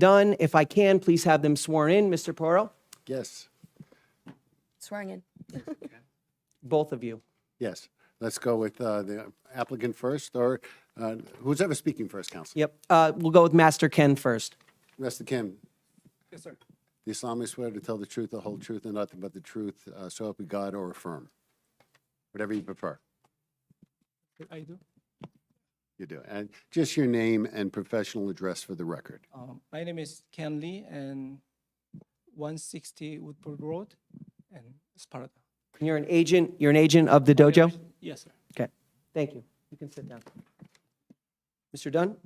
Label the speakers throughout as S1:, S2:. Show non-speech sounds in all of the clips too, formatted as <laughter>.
S1: done. If I can, please have them sworn in, Mr. Porro,
S2: Yes,
S3: Swearing in.
S1: both of you.
S2: yes. Let's go with uh, the applicant first, or uh, who's ever speaking first, counsel?
S1: Yep, uh, we'll go with Master Ken first.
S2: Mr. Kim? Yes, sir. Do solemnly swear to tell the truth, the whole truth, and nothing but the truth, uh, so help you God, or affirm? Whatever you prefer,
S4: I do.
S2: you do. And just your name and professional address for the record.
S4: Um, My name is Ken Lee and 160 Woodford Road and Sparta.
S1: And You're an agent, you're an agent of the dojo?
S4: Yes, sir.
S1: Okay, thank you. You can sit down. Mr. Dunn?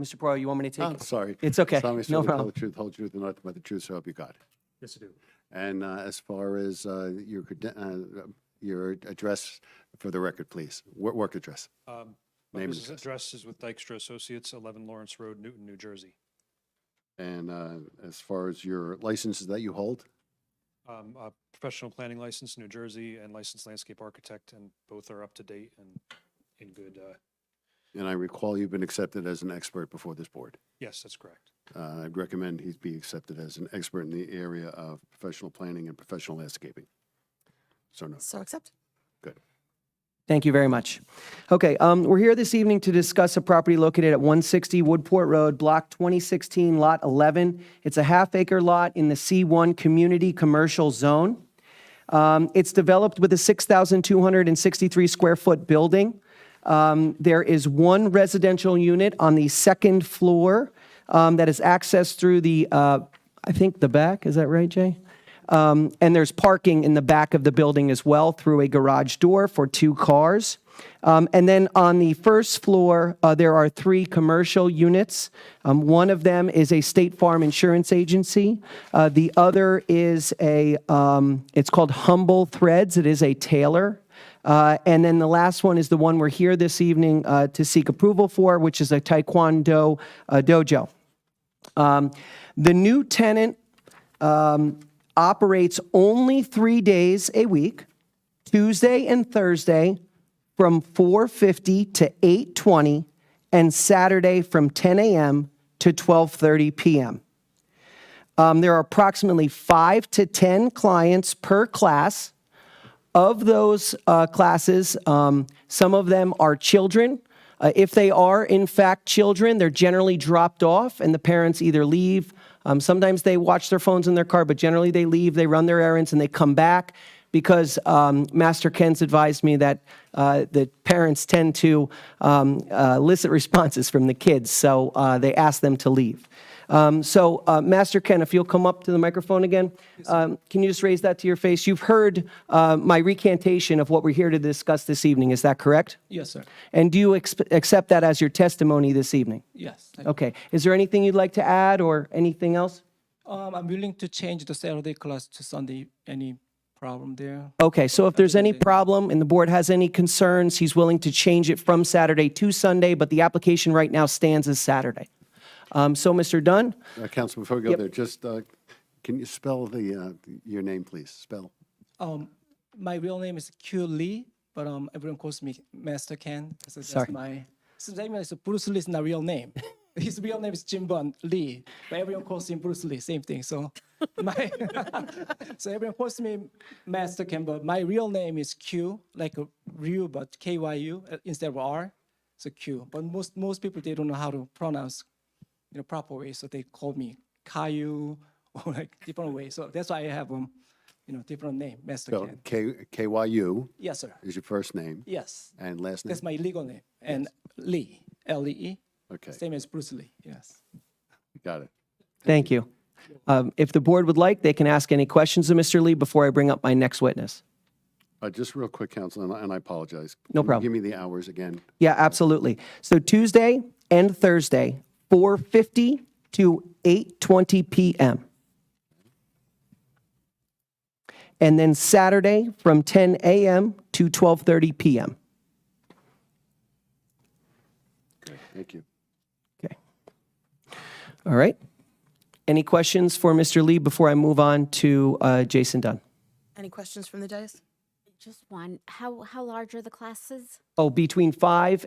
S1: Mr. Porro, you want me to take
S2: I'm
S1: it?
S2: Oh, sorry.
S1: It's okay.
S2: Solemnly
S1: No
S2: swear to tell
S1: problem.
S2: the truth, the whole truth, and nothing but the truth, so help you God.
S5: Yes, I do.
S2: And uh, as far as uh, your, creden- uh, your address for the record, please, Wo- work address.
S5: Um,
S2: Name
S5: My
S2: and
S5: business address is with Dykstra Associates, 11 Lawrence Road, Newton, New Jersey.
S2: And uh, as far as your licenses that you hold,
S5: Um, a Professional planning license, New Jersey, and licensed landscape architect, and both are up to date and in good, uh,
S2: and I recall you've been accepted as an expert before this board.
S5: yes, that's correct.
S2: Uh, I'd recommend he be accepted as an expert in the area of professional planning and professional landscaping. So no,
S3: So accept.
S2: good.
S1: Thank you very much. Okay, um, we're here this evening to discuss a property located at 160 Woodport Road, Block 2016, Lot 11. It's a half-acre lot in the C1 Community Commercial Zone. Um, It's developed with a 6,263-square-foot building. Um, There is one residential unit on the second floor um, that is accessed through the, uh, I think, the back, is that right, Jay? Um, And there's parking in the back of the building as well through a garage door for two cars. Um, And then on the first floor, uh, there are three commercial units. Um, One of them is a State Farm Insurance Agency. Uh, The other is a, um, it's called Humble Threads. It is a tailor. Uh, And then the last one is the one we're here this evening uh, to seek approval for, which is a Taekwondo uh, dojo. Um, The new tenant um, operates only three days a week, Tuesday and Thursday from 4:50 to 8:20, and Saturday from 10 a.m. to 12:30 p.m. Um, There are approximately five to 10 clients per class. Of those uh, classes, um, some of them are children. Uh, if they are, in fact, children, they're generally dropped off and the parents either leave. Um, sometimes they watch their phones in their car, but generally they leave, they run their errands, and they come back because um, Master Ken's advised me that uh, the parents tend to um, uh, elicit responses from the kids, so uh, they ask them to leave. Um, So, uh, Master Ken, if you'll come up to the microphone again, um, can you just raise that to your face? You've heard uh, my recantation of what we're here to discuss this evening, is that correct?
S4: Yes, sir.
S1: And do you exp- accept that as your testimony this evening?
S4: Yes. thank you.
S1: Okay. Is there anything you'd like to add or anything else?
S4: Um, I'm willing to change the Saturday class to Sunday. Any problem there?
S1: Okay, so if there's any problem and the board has any concerns, he's willing to change it from Saturday to Sunday, but the application right now stands as Saturday. Um, So, Mr. Dunn,
S2: Uh, Counsel, before we go there, just, uh, can you spell the, uh, your name, please? Spell.
S4: Um, My real name is Q Lee, but um, everyone calls me Master Ken. So
S1: Sorry.
S4: that's my, so that means Bruce Lee is not real name. <laughs> His real name is Jim Bun Lee, but everyone calls him Bruce Lee, same thing. So <laughs> my, so everyone calls me Master Ken, but my real name is Q, like a Ryu, but K-Y-U uh, instead of R, so Q. But most, most people, they don't know how to pronounce in a proper way, so they call me Caillou <laughs> or like different way. So that's why I have um, you know, different name, Master
S2: Spell
S4: Ken.
S2: K, K-Y-U
S4: Yes, sir.
S2: is your first name
S4: Yes,
S2: and last name?
S4: that's my legal name, and Lee, L E E.
S2: Okay.
S4: Same as Bruce Lee. Yes.
S2: Got it.
S1: thank you. Um, If the board would like, they can ask any questions of Mr. Lee before I bring up my next witness.
S2: Uh, Just real quick, counsel, and I- and I apologize.
S1: No
S2: Can you
S1: problem.
S2: Give me the hours again.
S1: Yeah, absolutely. So Tuesday and Thursday, 4:50 to 8:20 PM. And then Saturday from 10 AM to 12:30 PM.
S2: Thank you.
S1: Okay. All right. Any questions for Mr. Lee before I move on to uh, Jason Dunn?
S3: Any questions from the dais?
S6: Just one. How how large are the classes?
S1: Oh, between five